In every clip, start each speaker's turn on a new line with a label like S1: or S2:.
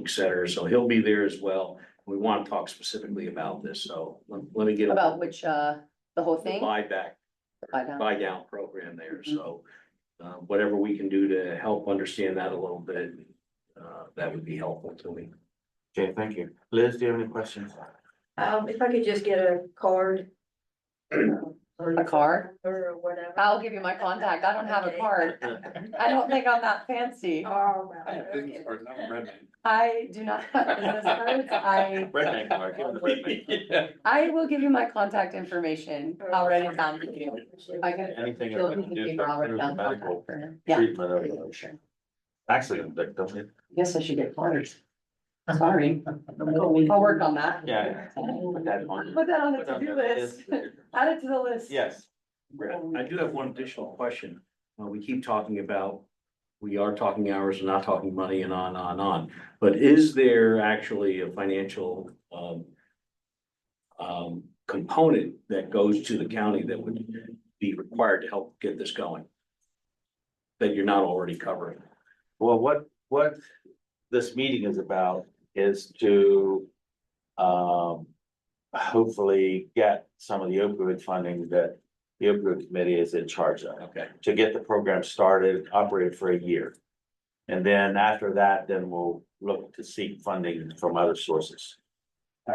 S1: et cetera, so he'll be there as well. We want to talk specifically about this, so let let me get.
S2: About which, uh, the whole
S1: The
S2: thing?
S1: buy back,
S2: Buy down.
S1: buy down program there, so, uh, whatever we can do to help understand that a little bit, uh, that would be helpful to me.
S3: Okay, thank you. Liz, do you have any questions?
S4: Um, if I could just get a card.
S2: A card?
S4: Or whatever.
S2: I'll give you my contact. I don't have a
S4: Okay.
S2: card. I don't think I'm that fancy.
S4: Oh,
S5: I have business
S4: okay.
S5: cards, not a red man.
S2: I do not have business cards. I,
S3: Redneck Mark, give it a redneck.
S2: I will give you my contact information. I'll write it down for you. I can.
S3: Anything.
S2: You'll
S3: that
S2: need to
S3: we can do
S2: give
S3: to
S2: her all
S3: improve the
S2: down
S3: medical
S2: contact for her. Yeah.
S3: Treatment of it. Actually, like, don't it?
S2: Guess I should get cards. Sorry. I'll work on that.
S3: Yeah. Put that on.
S2: Put that on the
S3: Put on
S2: to-do
S3: your
S2: list. Add it to the list.
S3: Yes.
S1: I do have one additional question. Uh, we keep talking about, we are talking hours and not talking money and on, on, on. But is there actually a financial, um, um, component that goes to the county that would be required to help get this going? That you're not already covering?
S3: Well, what, what this meeting is about is to, um, hopefully get some of the opioid funding that the opioid committee is in charge of.
S1: Okay.
S3: to get the program started, operated for a year. And then after that, then we'll look to seek funding from other sources.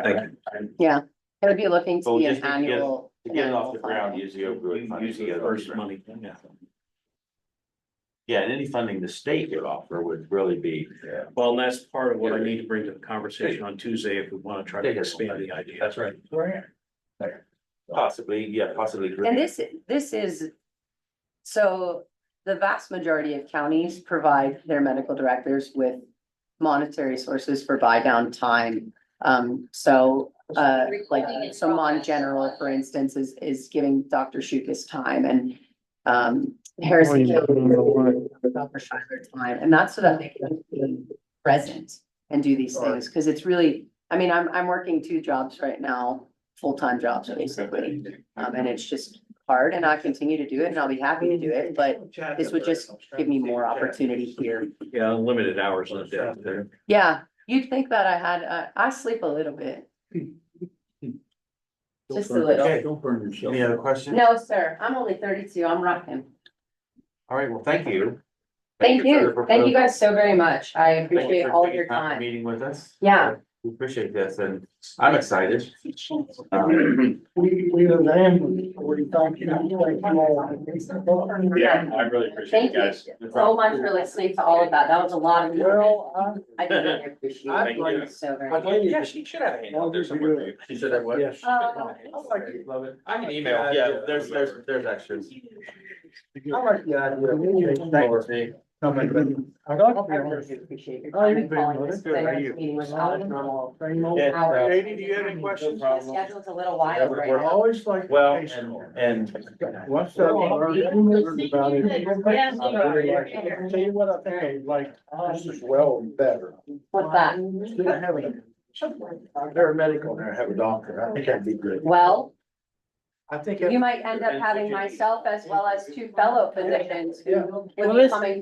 S1: Thank you.
S2: It would be looking to
S3: Well,
S2: be an
S3: just to get-
S2: annual.
S3: To get it off
S2: annual
S3: the ground,
S2: filing.
S3: use the opioid funding.
S1: Use
S3: to
S1: the
S3: get it off the
S1: first
S3: ground.
S1: money. yeah.
S3: Yeah, and any funding the state would offer would really be.
S1: Well, and that's part of what I need to bring to the conversation on Tuesday if we want to try to expand the idea.
S5: That's right.
S3: Possibly, yeah, possibly.
S2: And this, this is, so the vast majority of counties provide their medical directors with monetary sources for buy down time. Um, so, uh, like,
S6: Recording in
S2: so Mon
S6: progress.
S2: General, for instance, is, is giving Dr. Shukas time and, um, Harrison. County, Dr. Schuyler time, and that's so that they can be present and do these things, because it's really, I mean, I'm, I'm working two jobs right now, full-time jobs basically. Um, and it's just hard and I continue to do it and I'll be happy to do it, but this would just give me more opportunity here.
S1: Yeah, limited hours on that there.
S2: Yeah, you'd think that I had, uh, I sleep a little bit. Just a little.
S3: Okay, any other questions?
S2: No, sir, I'm only thirty-two. I'm rocking.
S3: All right, well, thank you.
S2: Thank
S3: for
S2: you.
S3: the
S2: Thank you
S3: proposal.
S2: guys so very much. I
S3: Thank you
S2: appreciate
S3: for
S2: all of
S3: taking
S2: your
S3: for
S2: time.
S3: Meeting with us.
S2: Yeah.
S3: We appreciate this and I'm excited. Um,
S1: Yeah,
S7: We, we have land, we don't, you know.
S5: I really
S2: Thank you so much for listening to all of that. That was a lot of.
S7: Well, I'm.
S2: I really appreciate it.
S7: I'd
S5: like-
S2: So very
S7: I'd
S2: much.
S7: like to-
S5: Yeah, she should have a handout there somewhere. for you.
S3: She said that what?
S7: Yes.
S2: Oh.
S7: I like it.
S3: Love it.
S5: I can email.
S3: Yeah, there's, there's, there's extras.
S7: I like the idea. of you coming, but I don't.
S2: I really appreciate your
S7: Oh,
S2: time
S7: you're
S2: and
S7: very
S2: calling
S7: well,
S2: this
S7: that's good. How are
S2: today's
S7: you?
S2: meeting was out of normal.
S3: Yeah.
S5: Katie, do you have any questions?
S2: The schedule's a little wild right
S7: I
S2: now.
S7: always like.
S3: Well, and, and
S7: What's up? I learned about it.
S6: Yes,
S7: I really like it. I'll Tell you what, I think I like this is well better.
S2: What's that?
S7: Didn't have a, they're a medical, they have a doctor. I think that'd be good.
S2: Well,
S7: I think.
S2: You might end up having myself as well as two fellow physicians who
S7: Yeah.
S2: would be coming